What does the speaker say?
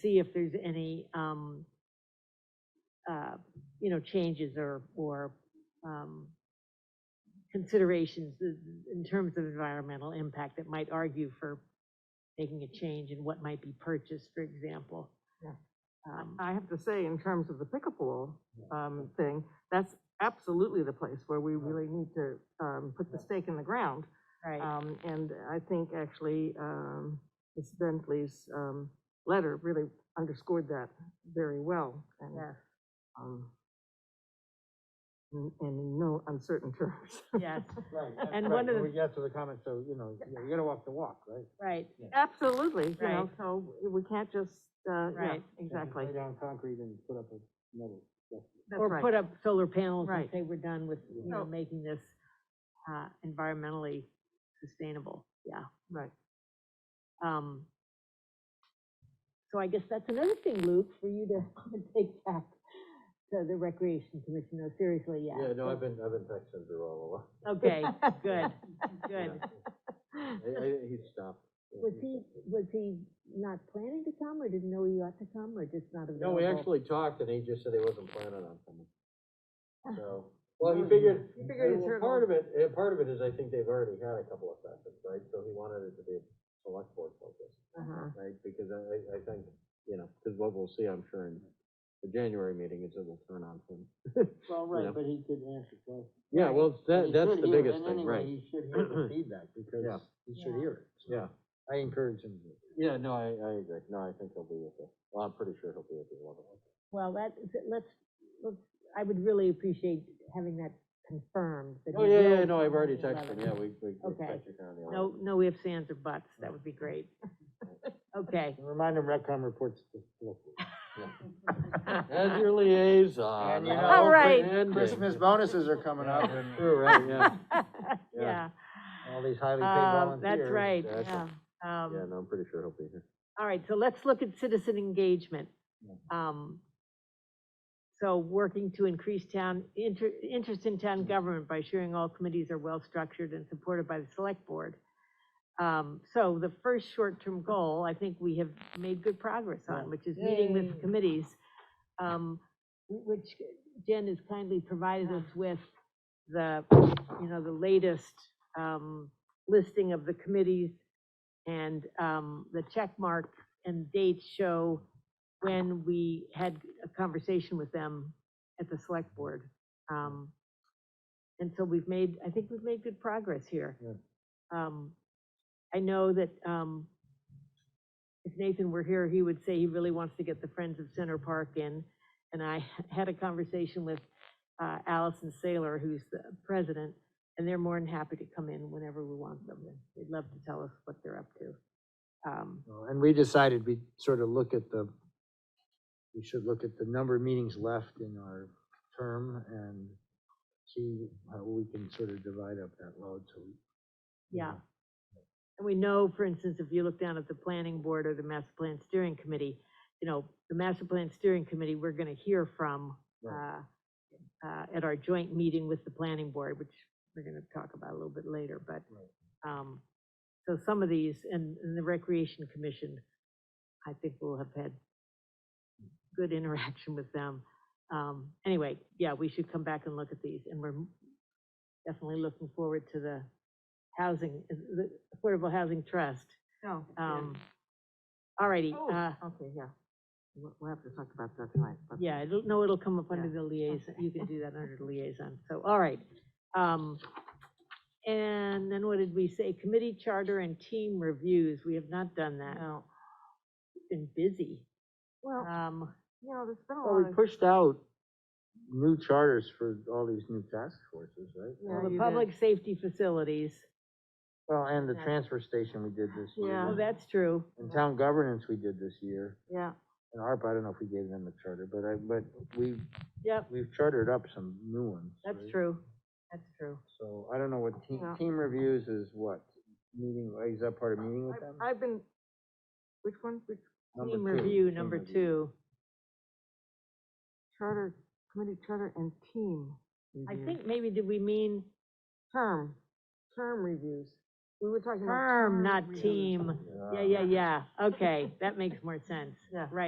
see if there's any, um, uh, you know, changes or, or, um, considerations in in terms of environmental impact that might argue for making a change in what might be purchased, for example. Yeah. Um, I have to say, in terms of the pickleball, um, thing, that's absolutely the place where we really need to, um, put the stake in the ground. Right, Um, and I think actually, um, Ms. Bentley's, um, letter really underscored that very well. and, yes, um, And and in no uncertain terms. yes, Right, that's And right, one of the- We get to the comment, so, you know, you know, you gotta walk the walk, right? right, Absolutely, you know, Right. so we can't just, uh, yeah, Right. You can't just exactly. Lay down concrete and put up a metal. That's or right. put up solar panels and Right. say we're done with, you know, No. making this, uh, environmentally sustainable, yeah. Right. Um, so I guess that's another thing, Luke, for you to take back to the recreation commission, no, seriously, yeah. so- been, I've been texting her all Okay, good, good. I, I, he stopped. Was he, was he not planning to come, or didn't know he ought to come, or just not available? No, we actually talked and he just said he wasn't planning on coming. So, well, he Mm. figured, He figured he'd well, turn part of it, eh, part of it is I think they've already had a couple of sessions, right? So he wanted it to be select board focused, Uh-huh. right? Because I, I- I think, you know, because what we'll see, I'm sure, in the January meeting is it will turn on him. Well, Yeah. right, but he could answer questions. Yeah, well, that, He that's should the hear it, biggest and thing, anyway, right? He should hear the feedback, Yeah. because he should Yeah. hear it. so Yeah, I encourage him to. yeah, no, I, I agree. No, I think he'll be with us. Well, I'm pretty sure he'll be with the eleven. Well, that, let's, let's, I would really appreciate having that confirmed. that Oh, he yeah, will yeah, no, I've come already on the texted him. 11th. Yeah, we, we. we Okay. texted him on the 11th. No, no ifs, ands, or buts, that would be great. Okay, And Remind him Redcom reports to. As your liaison. And you how know, All right. ending. Christmas bonuses are coming up, and True, right, yeah, yeah, Yeah. all these highly paid um, volunteers. that's right, yeah. exactly. Um, yeah, no, I'm pretty sure he'll be here. All right, so let's look at citizen engagement. Yeah. Um, So working to increase town, inter, interest in town government by ensuring all committees are well-structured and supported by the select board. Um, So the first short-term goal, I think we have made good progress on, which is meeting with Yay. committees, um, which Jen has kindly provided us with the, you know, the latest um, listing of the committees and um, the check mark and dates show when we had a conversation with them at the select board. Um, And so we've made, I think we've made good progress here. Yeah. Um, I know that um, if Nathan were here, he would say he really wants to get the Friends of Center Park in. And I had a conversation with uh, Allison Saylor, who's the president, and they're more than happy to come in whenever we want them. They'd love to tell us what they're up to. Um, Well, And we decided we sort of look at the, we should look at the number of meetings left in our term and see how we can sort of divide up that load, so. we- Yeah. And we know, for instance, if you look down at the planning board or the master plan steering committee, you know, the master plan steering committee, we're gonna hear from, uh, Right. uh, at our joint meeting with the planning board, which we're gonna talk about a little bit later, but, Right. um, so some of these, and, and the recreation commission, I think we'll have had good interaction with them. Um, anyway, yeah, we should come back and look at these, and we're definitely looking forward to the housing, uh, the Affordable Housing Trust. No. Um, all righty, Oh, uh, Okay, yeah. We'll, we'll have to talk about that tonight. but- yeah, it'll, no, it'll come up under Yeah, the liaison, okay. you can do that under the liaison, so, all right. Um, and then what did we say? Committee charter and team reviews, we have not done that, No. Oh. been busy. Well, Um, you know, there's been a Well, lot we of. pushed out new charters for all these new task forces, right? Yeah, well, the you did. public safety facilities, Well, and the Yeah. transfer station we did this Yeah. oh, year. that's true, And town governance we did this year. Yeah, And ARP, I don't know if we gave them a charter, but I, but we, yep, we've chartered up some new ones. that's right? true, that's true. So I don't know what team, Yeah. team reviews is what? Meeting, is that part of meeting with them? I- I've been, which one, which Number Team two, review, team number review. two. charter, committee charter and team, I Mhm. think maybe did we mean term, term reviews. We were talking about. term, not reviews. team? Yeah, yeah, yeah, okay, that makes more sense, Yeah. right.